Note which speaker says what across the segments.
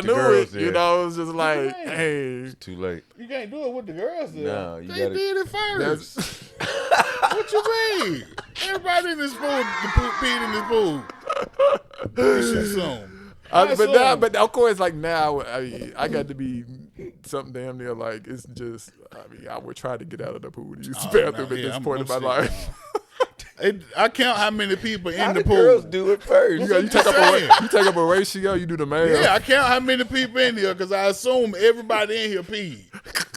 Speaker 1: I
Speaker 2: the
Speaker 1: knew
Speaker 2: girls
Speaker 1: it. You
Speaker 2: there.
Speaker 1: know, it was just like,
Speaker 3: Right.
Speaker 1: hey,
Speaker 2: Too late.
Speaker 3: You can't do it with the girls. There.
Speaker 2: No, you
Speaker 3: they
Speaker 2: gotta-
Speaker 3: did it first.
Speaker 1: that's
Speaker 3: what you mean? Everybody in this pool, the pool peed in this pool. You should assume.
Speaker 1: I, but now,
Speaker 3: assume.
Speaker 1: but of course, like now, I, I got to be something damn near like it's just. I mean, I would try to get out of the pool to use
Speaker 3: Oh,
Speaker 1: the bathroom
Speaker 3: no,
Speaker 1: at
Speaker 3: yeah,
Speaker 1: this
Speaker 3: I'm-
Speaker 1: point
Speaker 3: I'm
Speaker 1: in my
Speaker 3: sick
Speaker 1: life.
Speaker 3: now. It, I count how many people
Speaker 2: How
Speaker 3: in the
Speaker 2: did
Speaker 3: pool.
Speaker 2: girls do it first?
Speaker 1: You, got- you take
Speaker 3: That's what
Speaker 1: up
Speaker 3: I'm
Speaker 1: a
Speaker 3: saying.
Speaker 1: ra- you take up a ratio. You do the math.
Speaker 3: Yeah, I count how many people in here because I assume everybody in here peed.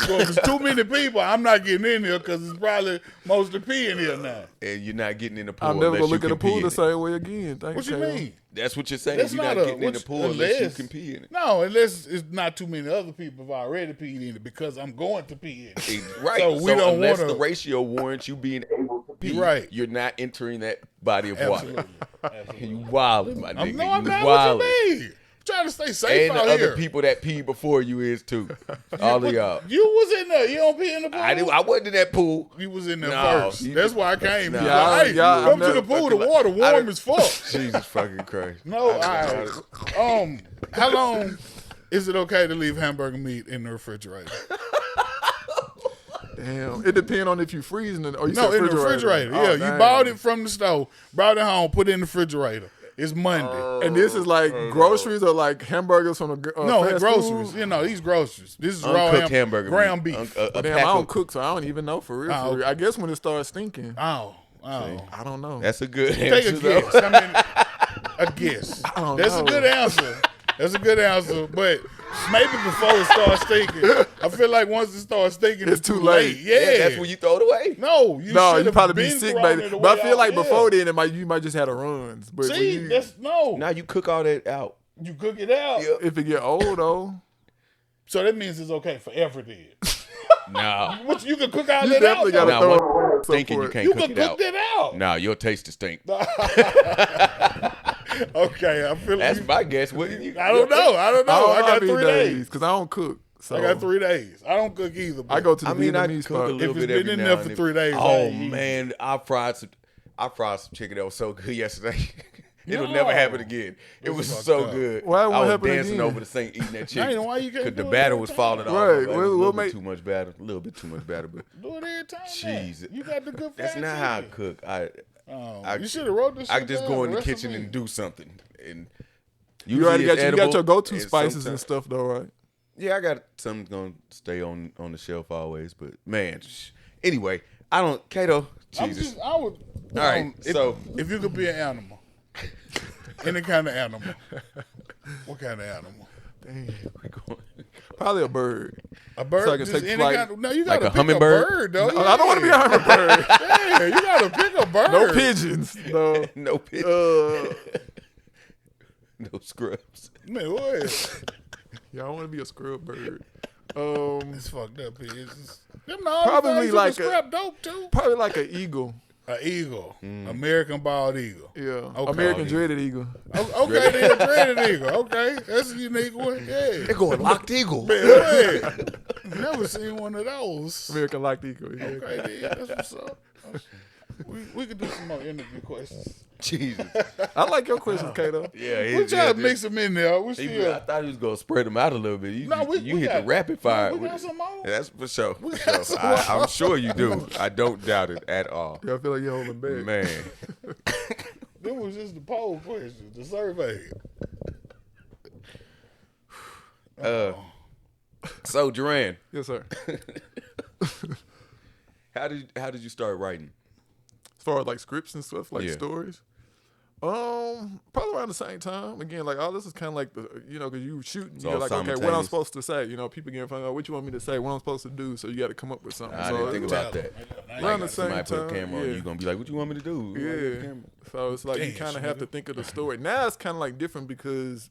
Speaker 3: So if it's too many people, I'm not getting in here because it's probably mostly pee in here now.
Speaker 2: and you're not getting in the pool.
Speaker 1: I'm never gonna
Speaker 2: unless you
Speaker 1: look at the
Speaker 2: can pee
Speaker 1: pool
Speaker 2: in
Speaker 1: the
Speaker 2: it.
Speaker 1: same way again. Thank
Speaker 3: What you
Speaker 1: Kale.
Speaker 3: mean?
Speaker 2: That's what you're saying.
Speaker 3: That's
Speaker 2: you're
Speaker 3: not
Speaker 2: not,
Speaker 3: a-
Speaker 2: getting in the
Speaker 3: what-
Speaker 2: pool unless,
Speaker 3: unless-
Speaker 2: you can pee in it.
Speaker 3: No, unless it's not too many other people have already peed in it because I'm going to pee in it.
Speaker 2: Right.
Speaker 3: So
Speaker 2: So,
Speaker 3: we don't
Speaker 2: unless
Speaker 3: wanna-
Speaker 2: the ratio warrants you being able to pee,
Speaker 3: Right.
Speaker 2: you're not entering that body of
Speaker 3: Absolutely.
Speaker 2: water. You wildin', my
Speaker 3: I'm,
Speaker 2: nigga.
Speaker 3: no, I'm
Speaker 2: you
Speaker 3: not.
Speaker 2: wildin'.
Speaker 3: What you mean? I'm trying to stay safe
Speaker 2: And the
Speaker 3: out
Speaker 2: other
Speaker 3: here.
Speaker 2: people that pee before you is too. All of
Speaker 3: What-
Speaker 2: y'all.
Speaker 3: You was in there. You don't pee in the pool.
Speaker 2: I didn't, I wasn't in that pool.
Speaker 3: You was in there
Speaker 2: No,
Speaker 3: first.
Speaker 2: you-
Speaker 3: That's why I came.
Speaker 2: No.
Speaker 3: You
Speaker 1: Yeah, I-
Speaker 3: like, hey,
Speaker 1: yeah,
Speaker 3: come
Speaker 1: I'm
Speaker 3: to the
Speaker 1: not
Speaker 3: pool. The
Speaker 2: fucking-
Speaker 3: water
Speaker 2: I
Speaker 3: warm
Speaker 2: done-
Speaker 3: as fuck.
Speaker 2: Jesus fucking Christ.
Speaker 3: No,
Speaker 2: I-
Speaker 3: I, um, how long is it okay to leave hamburger meat in the refrigerator?
Speaker 1: Damn. It depends on if you freezing it or you
Speaker 3: No,
Speaker 1: said
Speaker 3: in the refrigerator.
Speaker 1: Oh,
Speaker 3: yeah, you
Speaker 1: dang.
Speaker 3: bought it from the store, brought it home, put it in the refrigerator. It's Monday.
Speaker 1: And this is like
Speaker 2: Oh,
Speaker 1: groceries or like hamburgers from the uh,
Speaker 3: no,
Speaker 1: fast
Speaker 3: groceries.
Speaker 1: food?
Speaker 3: You know, these groceries. This is raw
Speaker 2: Uncooked
Speaker 3: ham-
Speaker 2: hamburger.
Speaker 3: ground
Speaker 2: meat.
Speaker 3: beef.
Speaker 2: Un- a- a
Speaker 1: Damn, I
Speaker 2: pack
Speaker 1: don't
Speaker 2: of- Ah,
Speaker 1: cook, so I don't even know for real.
Speaker 3: Oh,
Speaker 1: for real. I guess when it starts stinking,
Speaker 3: oh, oh.
Speaker 1: I don't know.
Speaker 2: That's a good
Speaker 3: Take a
Speaker 2: answer. though.
Speaker 3: guess. I mean, a guess.
Speaker 1: don't
Speaker 3: That's a
Speaker 1: know.
Speaker 3: good answer. That's a good answer, but maybe before it starts thinking, I feel like once it starts thinking, it's,
Speaker 1: too late.
Speaker 3: Yeah,
Speaker 2: Yeah, that's when you throw it away.
Speaker 3: No, you
Speaker 1: no,
Speaker 3: should
Speaker 1: you
Speaker 3: have
Speaker 1: probably be
Speaker 3: been
Speaker 1: sick,
Speaker 3: thrown
Speaker 1: baby.
Speaker 3: it the
Speaker 1: But
Speaker 3: way
Speaker 1: I feel
Speaker 3: out.
Speaker 1: like
Speaker 3: Yeah.
Speaker 1: before then, it might you might just had a runs. But when
Speaker 3: See,
Speaker 1: you-
Speaker 3: that's no.
Speaker 2: Now you cook all that out.
Speaker 3: you cook it out.
Speaker 2: Yeah.
Speaker 1: if it get old though,
Speaker 3: So that means it's okay for everything.
Speaker 2: No.
Speaker 3: What you can cook all
Speaker 1: you
Speaker 3: that out.
Speaker 1: definitely
Speaker 3: though.
Speaker 1: gotta
Speaker 2: Nah,
Speaker 1: throw
Speaker 2: what-
Speaker 1: it away.
Speaker 2: Thinking you can't
Speaker 3: you
Speaker 2: cook
Speaker 3: can
Speaker 2: it
Speaker 3: cook
Speaker 2: out.
Speaker 3: that out.
Speaker 2: No, your taste is stink.
Speaker 3: Okay, I feel
Speaker 2: That's
Speaker 3: like
Speaker 2: my guess. What do you,
Speaker 3: I don't know. I don't know. I, got uh, three days.
Speaker 1: because I don't cook. So
Speaker 3: I got three days. I don't cook either.
Speaker 1: I go to the
Speaker 2: I mean, I
Speaker 1: Vietnamese
Speaker 2: cook
Speaker 1: spot.
Speaker 2: a little
Speaker 3: If it's
Speaker 2: bit every
Speaker 3: been in
Speaker 2: now
Speaker 3: there for
Speaker 2: and then.
Speaker 3: three days, I
Speaker 2: Oh
Speaker 3: ain't eating.
Speaker 2: man, I fried some. I fried some chicken that was so good yesterday. It'll never happen again. It was
Speaker 3: fucked
Speaker 2: so
Speaker 3: up.
Speaker 2: good.
Speaker 1: Why it won't
Speaker 2: I was
Speaker 1: happen
Speaker 2: dancing
Speaker 1: again?
Speaker 2: over the sink eating that chicken.
Speaker 3: why you can't
Speaker 2: 'Cause the
Speaker 3: do it
Speaker 2: batter
Speaker 3: every
Speaker 2: was
Speaker 3: time?
Speaker 2: falling off.
Speaker 1: Right,
Speaker 2: It was
Speaker 1: we'll-
Speaker 2: a little
Speaker 1: we'll
Speaker 2: bit
Speaker 1: make-
Speaker 2: too much batter. A little bit too much batter, but
Speaker 3: Do it every time.
Speaker 2: Jeez.
Speaker 3: Jeez, you got the good.
Speaker 2: that's
Speaker 3: fat
Speaker 2: not how I
Speaker 3: chicken.
Speaker 2: cook. I
Speaker 3: Oh,
Speaker 2: I-
Speaker 3: you should have wrote this.
Speaker 2: I
Speaker 3: shit
Speaker 2: just
Speaker 3: down,
Speaker 2: go in the
Speaker 3: recipe.
Speaker 2: kitchen and do something. And
Speaker 1: You already got
Speaker 2: usually
Speaker 1: your, you
Speaker 2: it's
Speaker 1: got your
Speaker 2: edible,
Speaker 1: go-to spices and
Speaker 2: sometimes-
Speaker 1: stuff though, right?
Speaker 2: Yeah, I got something gonna stay on on the shelf always. But man, sh- anyway, I don't. Kato,
Speaker 3: I'm
Speaker 2: Jesus.
Speaker 3: just, I
Speaker 2: All
Speaker 3: would.
Speaker 2: right,
Speaker 3: um, if-
Speaker 2: so-
Speaker 3: if you could be an animal, any kind of animal, what kind of animal?
Speaker 1: Probably a bird.
Speaker 3: A bird?
Speaker 1: So I can
Speaker 3: just
Speaker 1: take
Speaker 3: any
Speaker 1: flight.
Speaker 3: kind of, no, you got to
Speaker 2: a
Speaker 3: pick
Speaker 2: hummingbird?
Speaker 3: a bird, though.
Speaker 1: No, I don't want to be a hummingbird.
Speaker 3: Yeah, you got to pick a bird.
Speaker 1: no pigeons. No.
Speaker 2: no pitch,
Speaker 1: Uh,
Speaker 2: no scrubs.
Speaker 3: Man, what is
Speaker 1: yeah, I want to be a scrub bird. Um,
Speaker 3: it's fucked up? Pigeons. Them the only
Speaker 1: Probably
Speaker 3: things you
Speaker 1: like
Speaker 3: can
Speaker 1: a-
Speaker 3: scrap dope too.
Speaker 1: probably like an eagle.
Speaker 3: An eagle,
Speaker 2: Mm.
Speaker 3: American bald eagle.
Speaker 1: Yeah,
Speaker 3: Okay.
Speaker 1: American dreaded eagle.
Speaker 3: O- Okay, then a dreaded eagle. Okay, that's a unique one. Yeah.
Speaker 2: They're going locked eagle.
Speaker 3: Man, what? Never seen one of those.
Speaker 1: American locked eagle. Yeah.
Speaker 3: Okay, then, that's what's up. We, we could do some more interview questions.
Speaker 2: Jesus.
Speaker 1: I like your questions, Kato.
Speaker 2: Yeah,
Speaker 3: We
Speaker 2: his-
Speaker 3: try
Speaker 2: yeah,
Speaker 3: to mix them in there. We
Speaker 2: he-
Speaker 3: still.
Speaker 2: I thought he was gonna spread them out a little bit. You,
Speaker 3: No, we-
Speaker 2: you
Speaker 3: we
Speaker 2: hit
Speaker 3: got-
Speaker 2: the rapid fire.
Speaker 3: we got
Speaker 2: with it.
Speaker 3: some more.
Speaker 2: That's for sure. For
Speaker 3: got
Speaker 2: sure.
Speaker 3: some
Speaker 2: I, I'm sure you do. I don't doubt it at all.
Speaker 1: Yeah, I feel like you're holding back.
Speaker 2: Man,
Speaker 3: Them was just the poll question, the survey.
Speaker 2: uh, so Duran,
Speaker 1: Yes, sir. As
Speaker 2: how did how did you start writing?
Speaker 1: far as like scripts and stuff, like
Speaker 2: Yeah.
Speaker 1: stories. Um, probably around the same time. Again, like all this is kind of like the you know because you shooting,
Speaker 2: all
Speaker 1: you're like okay, what I'm
Speaker 2: simultaneous.
Speaker 1: supposed to say. You know, people getting fun. What you want me to say? What I'm supposed to do? So you got to come up with something.
Speaker 2: I
Speaker 1: so
Speaker 2: didn't think
Speaker 1: it's-
Speaker 2: about that.
Speaker 1: Around the
Speaker 2: Somebody
Speaker 1: same
Speaker 2: put a
Speaker 1: time,
Speaker 2: camera on
Speaker 1: yeah.
Speaker 2: you, gonna be like, "What you want me to do?" You want me to do the
Speaker 1: Yeah.
Speaker 2: camera?
Speaker 1: So it's like you
Speaker 3: Damn,
Speaker 1: kind of have to think of the story. Now it's kind of like different because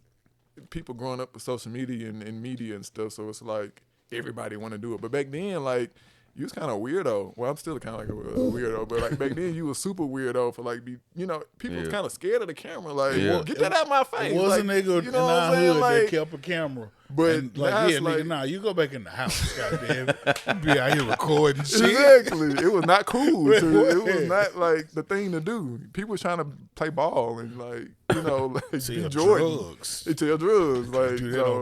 Speaker 1: people growing up with social media and, and media and stuff. So it's like everybody want to do it. But back then, like you was kind of weirdo. Well, I'm still kind of like a weirdo, but like back then you was super weirdo for like be you know people was
Speaker 2: Yeah.
Speaker 1: kind of scared of the camera. Like
Speaker 2: Yeah.
Speaker 1: well, get that out my face.
Speaker 3: It was a
Speaker 1: Like,
Speaker 3: nigga
Speaker 1: you
Speaker 3: in
Speaker 1: know what
Speaker 3: our
Speaker 1: I'm
Speaker 3: hood
Speaker 1: saying? Like,
Speaker 3: that kept a camera.
Speaker 1: But
Speaker 3: and like,
Speaker 1: now
Speaker 3: yeah,
Speaker 1: it's
Speaker 3: nigga,
Speaker 1: like-
Speaker 3: nah, you go back in the house, goddamn. You be out here recording shit.
Speaker 1: Exactly. It was not cool.
Speaker 3: Wait,
Speaker 1: to- it
Speaker 3: what?
Speaker 1: was not like the thing to do. People was trying to play ball and like you know like
Speaker 3: Sell
Speaker 1: be Jordan.
Speaker 3: drugs.
Speaker 1: It tell drugs like
Speaker 3: Do that
Speaker 1: so-
Speaker 3: on